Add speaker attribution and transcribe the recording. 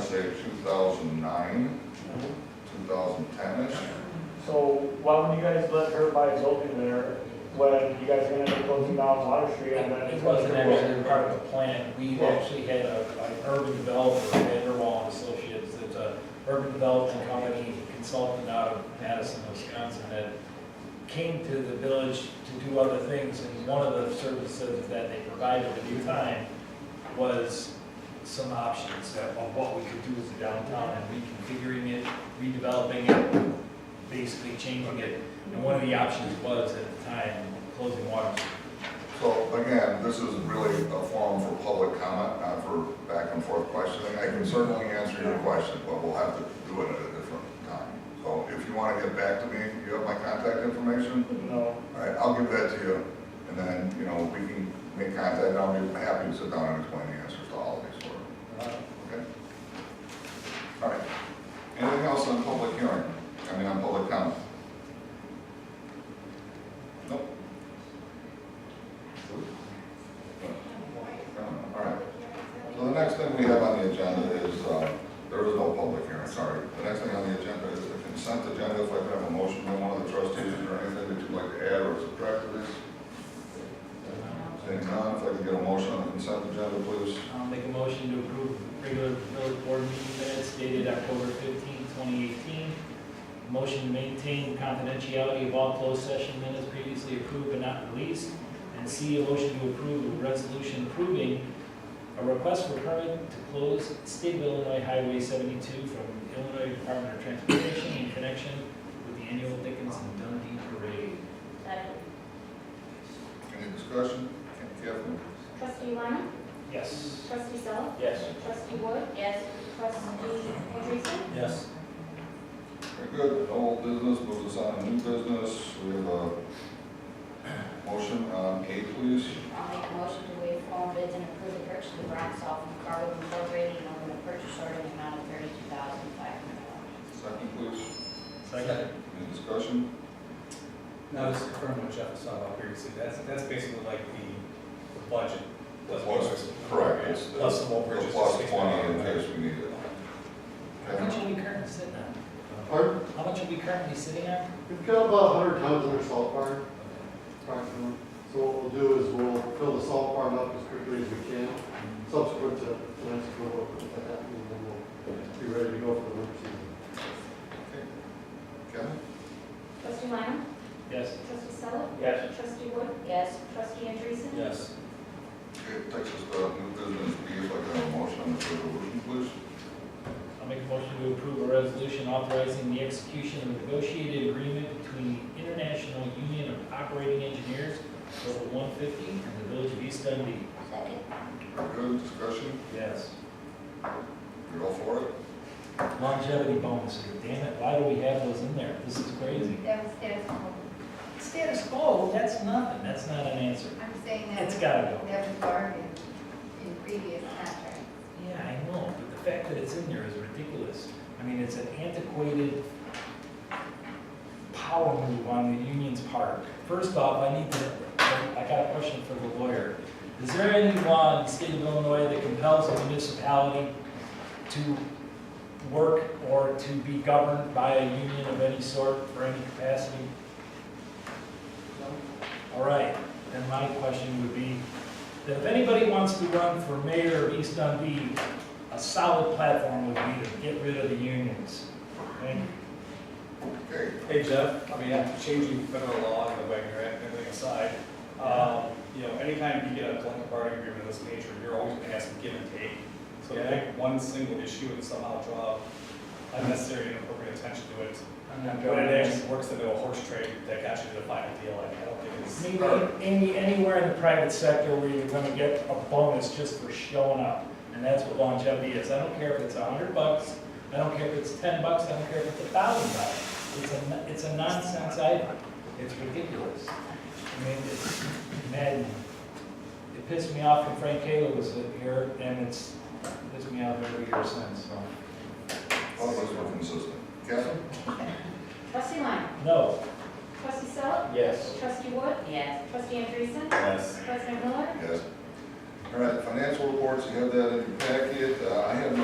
Speaker 1: say two thousand nine, two thousand ten-ish.
Speaker 2: So why wouldn't you guys let her buy a building there when you guys are gonna be closing down Water Street and then
Speaker 3: It
Speaker 2: it's
Speaker 3: wasn't
Speaker 2: gonna
Speaker 3: actually part of the plan. We actually had a, an urban developer, Vanderwall and Associates, that's a urban development company consultant out of Madison, Wisconsin, that came to the village to do other things, and one of the services that they provided at the time was some options that- of what we could do as a downtown and reconfiguring it, redeveloping it, basically changing it. And one of the options was at the time, closing Water Street.
Speaker 1: So again, this is really a forum for public comment, not for back and forth questioning. I can certainly answer your question, but we'll have to do it at a different time. So if you want to get back to me, you have my contact information?
Speaker 2: be, no.
Speaker 1: All right, I'll give that to you, and then, you know, we can make contact, and I'll be happy to sit down and explain the answers to all of these for you,
Speaker 3: Uh,
Speaker 1: okay? All right. Anything else on public hearing? I mean, on public comment? Nope. All right. So the next thing we have on the agenda is, uh, there is no public hearing, sorry. The next thing on the agenda is the consent agenda. If I could have a motion by one of the trustees or anything that you'd like to add or subtract to this? Seeing none, if I could get a motion on the consent agenda, please.
Speaker 3: I'll make a motion to approve regular village board meeting minutes dated October 15, 2018. Motion to maintain confidentiality of all closed session minutes previously approved but not released. And C, a motion to approve a resolution approving a request for permit to close State of Illinois Highway 72 from Illinois Department of Transportation in connection with the annual Dickens and Dundee Parade.
Speaker 4: Second.
Speaker 1: Any discussion? Catherine?
Speaker 5: Trustee Lina?
Speaker 3: Yes.
Speaker 5: Trustee Sel?
Speaker 3: Yes.
Speaker 5: Trustee Wood?
Speaker 4: Yes.
Speaker 5: Trustee Andreessen?
Speaker 3: Yes.
Speaker 1: Very good. Old business, move us on to new business. We have a motion on A, please.
Speaker 4: I'll make a motion to waive formal bids and approve the purchase of Brown Salt from Cargo Incorporated and open the purchase order in the amount of thirty-two thousand five hundred dollars.
Speaker 1: Second, please.
Speaker 3: Second.
Speaker 1: Any discussion?
Speaker 6: Now, just confirm what Jeff was talking about previously, that's, that's basically like the the budget. plus
Speaker 1: Plus- Correct. It's the-
Speaker 6: Plus the whole
Speaker 1: The
Speaker 6: purchase.
Speaker 1: plus twenty in case we need it.
Speaker 3: How much
Speaker 1: Okay.
Speaker 3: are we currently sitting on?
Speaker 7: Pardon?
Speaker 3: How much are we currently sitting on?
Speaker 7: We've got about hundred tons in our salt barn, approximately. So what we'll do is we'll fill the salt barn up as quickly as we can, subsequent to tonight's approval, if that happens, and then we'll be ready to go for the winter season.
Speaker 1: Kevin?
Speaker 5: Trustee Lina?
Speaker 3: Yes.
Speaker 5: Trustee Sel?
Speaker 2: Yes.
Speaker 5: Trustee Wood?
Speaker 4: Yes.
Speaker 5: Trustee Andreessen?
Speaker 3: Yes.
Speaker 1: Okay, takes us to new business B, if I could have a motion on the resolution, please.
Speaker 3: I'll make a motion to approve a resolution authorizing the execution of a negotiated agreement between the International Union of Operating Engineers, Local 150, and the Village of East Dundee.
Speaker 4: Second.
Speaker 1: Very good. Discussion?
Speaker 3: Yes.
Speaker 1: You're all for it?
Speaker 3: Longevity bonus, damn it, why do we have those in there? This is crazy.
Speaker 8: That was status quo.
Speaker 3: Status quo, that's nothing, that's not an answer.
Speaker 8: I'm saying that
Speaker 3: It's
Speaker 8: was,
Speaker 3: gotta go.
Speaker 8: that was bargained in previous contracts.
Speaker 3: Yeah, I know, but the fact that it's in there is ridiculous. I mean, it's an antiquated power move on the union's part. First off, I need to, I got a question for the lawyer. Is there any law in the state of Illinois that compels a municipality to work or to be governed by a union of any sort for any capacity? All right, then my question would be, that if anybody wants to run for mayor of East Dundee, a solid platform would be to get rid of the unions. Okay?
Speaker 1: Okay,
Speaker 6: Hey, Jeff, I mean, I'm changing federal law and the way you're at, everything aside, um, you know, anytime you get a collective bargaining agreement of this nature, you're always gonna have some give and take. So to pick one single issue and somehow draw unnecessary and inappropriate attention to it,
Speaker 3: I'm not
Speaker 6: when
Speaker 3: going
Speaker 6: it
Speaker 3: there.
Speaker 6: actually works into a horse trade that got you to the final deal, like, I don't think it's.
Speaker 3: Maybe, any, anywhere in the private sector where you're gonna get a bonus just for showing up, and that's what longevity is. I don't care if it's a hundred bucks, I don't care if it's ten bucks, I don't care if it's a thousand bucks. It's a, no- it's a nonsense item. It's ridiculous. I mean, it's maddening. It pissed me off when Frank Kayla was here, and it's pissed me off every year since, so.
Speaker 1: all of us were consistent. Kevin?
Speaker 5: Trustee Lina?
Speaker 3: No.
Speaker 5: Trustee Sel?
Speaker 3: Yes.
Speaker 5: Trustee Wood?
Speaker 4: Yes.
Speaker 5: Trustee Andreessen?
Speaker 6: Yes.
Speaker 5: President Miller?
Speaker 1: Yes. All right, financial reports, you have that in your packet. Uh, I have no